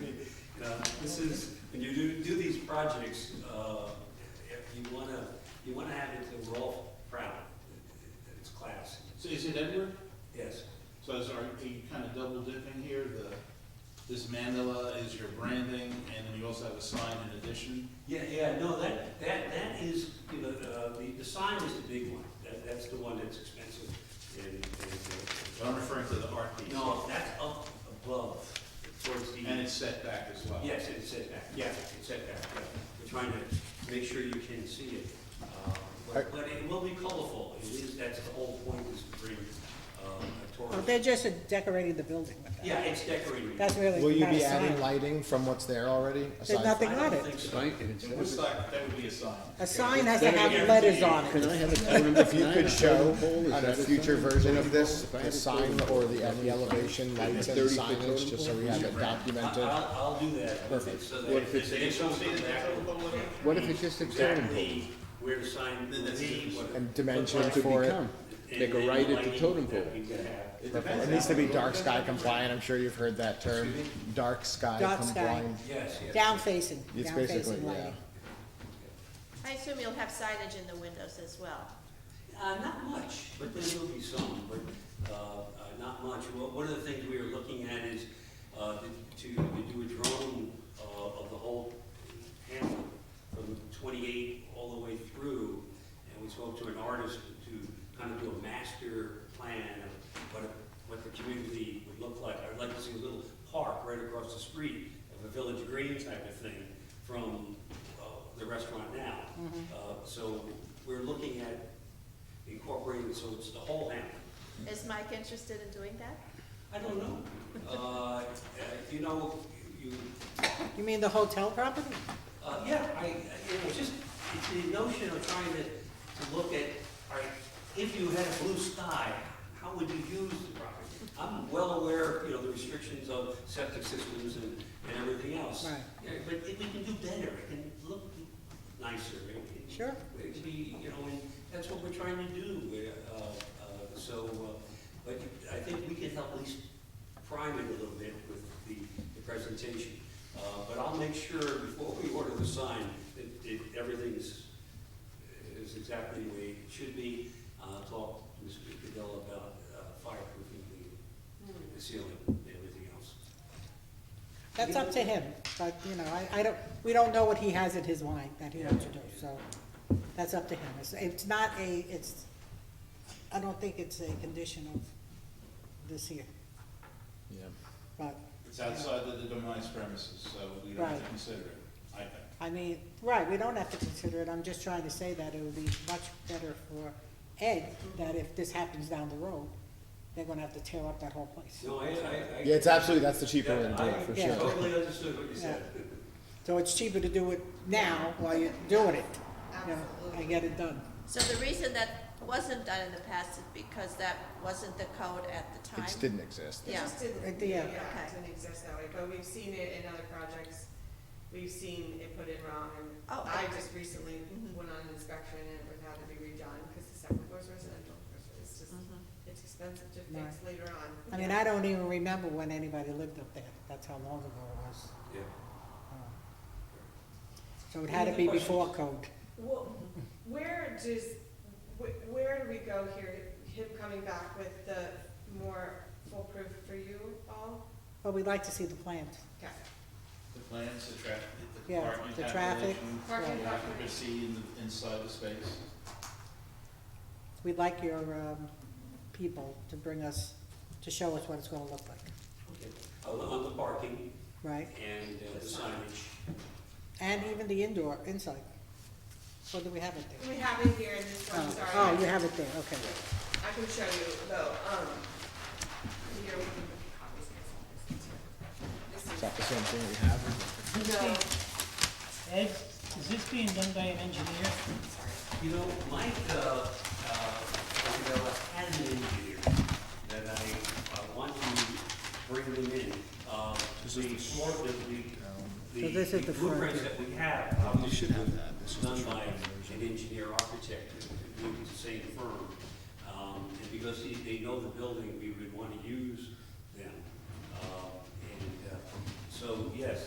Now, Uh, this is, when you do, do these projects, uh, if you wanna, you wanna have it to roll proud, that it's class, So is it Edward? yes. So is, are you kind of double dipping here? The, this mandala is your branding, and then you also have a sign in addition? Yeah, yeah, no, that, that, that is, you know, uh, the, the sign is the big one, that, that's the one that's expensive and, But I'm and. referring to the art piece. No, that's up above, towards the. And it's set back as well. Yes, it's set back, yeah, it's set back, yeah. We're trying to make sure you can see it. Uh, But but it will be colorful, it is, that's the whole point, is to bring um, a Well, tourist. They're just decorating the building with that. Yeah, it's decorating. That's really. Will you not a be sign. adding lighting from what's there already? aside from- nothing- I don't on it. think so. Sign, if it's- In Woodstock, that would be a sign. A sign has to Better have guarantee. letters on Can I it. have a phone number? If you Nine, could a show totem pole, is on a that future sign? version of this, If I had the a sign totem pole, or the, and the elevation lights and Thirty foot signage, just so we have it I- documented. I'll, I'll do that. Perfect. So What that if it's- they can show me exactly- What if it's just a totem pole? Exactly where the sign will be. what- And dimension what- Could For it. become, make a and- right and at the lighting totem that pole. we could have. It needs to be dark sky compliant, I'm sure you've heard that term, dark sky Dark sky. compliant. Yes, yes. Down facing, It's down basically, facing yeah. lighting. I assume you'll have signage in the windows as well. Uh, not much, but there will be some, but, uh, uh, not much. Well, One of the things we were looking at is, uh, to, to do a drone, uh, of the whole hamlet from twenty-eight all the way through. And we spoke to an artist to kind of do a master plan of what, a- what the community would look like. I'd like to see a little park right across the street of a village green type of thing from, uh, the restaurant now. Uh, so we're looking at incorporated, so it's the whole hamlet. Is Mike interested in doing that? I don't know. Uh, uh, you know, you, You mean the hotel property? uh, yeah, I, I- you know, it's just, it's the notion of trying to, to look at, all right, if you had a blue sky, how would you use the property? I'm well aware, of, you know, the restrictions of septic systems and, and everything else. Right. Yeah, But if we can do better, it can look nicer, it can Sure. It'd be, you know, and that's what we're trying to do, uh, uh, so, uh, but I think we can help at least prime it a little bit with the, the presentation. Uh, but I'll make sure before we order the sign, that, that everything's, is exactly the way it should be. Uh, talk to Mr. Cadell about uh, fireproofing the, the ceiling and everything else. That's up to him, but, you know, I, I don't, we don't know what he has in his mind that he wants to do, so that's up to him. It's, it's not a, it's, I don't think it's a condition of this year, Yeah. but, It's outside of the demise premises, so we don't have to Right. consider it, I think. I mean, right, we don't have to consider it, I'm just trying to say that it would be much better for Ed, that if this happens down the road, they're gonna have to tear up that whole place. No, I, I. I- Yeah, it's absolutely, that's the cheaper way to Yeah, do it, for I sure. totally understood what you said. So it's cheaper to do it now while you're doing it, you know, and get it done. So the reason that wasn't done in the past is because that wasn't the code at the It time? just didn't exist. Yeah. It just Right didn't, there. yeah, Okay. it didn't exist that way, but we've seen it in other projects, we've seen it put in wrong, and Oh, I I- just recently Mm-hmm. Mhm. went on an inspection and it would have to be redone, because the second floor's residential, it's just, Mhm. it's expensive to fix Mm-hmm. Right. later on. I mean, I don't even remember when anybody lived up there, that's how long ago it was. Yeah. So it had to be before code. Well, where does, wh- where do we go here, him coming back with the more foolproof for you all? But we'd like to see the plans. Okay. The plans, the traffic, the Yeah, parking the traffic. calculation, Parking the calculation. occupancy in the- inside the space. We'd like your um, people to bring us, to show us what it's gonna look like, Okay. On the- On the parking right? and uh, the signage. And even the indoor, inside. What do we have it there? We have it here in this one, Oh, sorry. Oh, you have it there, okay. I can show you though, um, here, we can put copies of this. Is that the same thing we have? This is, no, Ed, is this being done by an engineer? You know, Mike, uh, uh, you know, had an engineer that I, I want to bring them in. Uh, the floor, the, the. So this is the front. Blueprints that we have, obviously, done by an engineer architect, who would be the same firm. Um, and because he, they know the building, we would want to use them. Uh, and, uh, so, yes,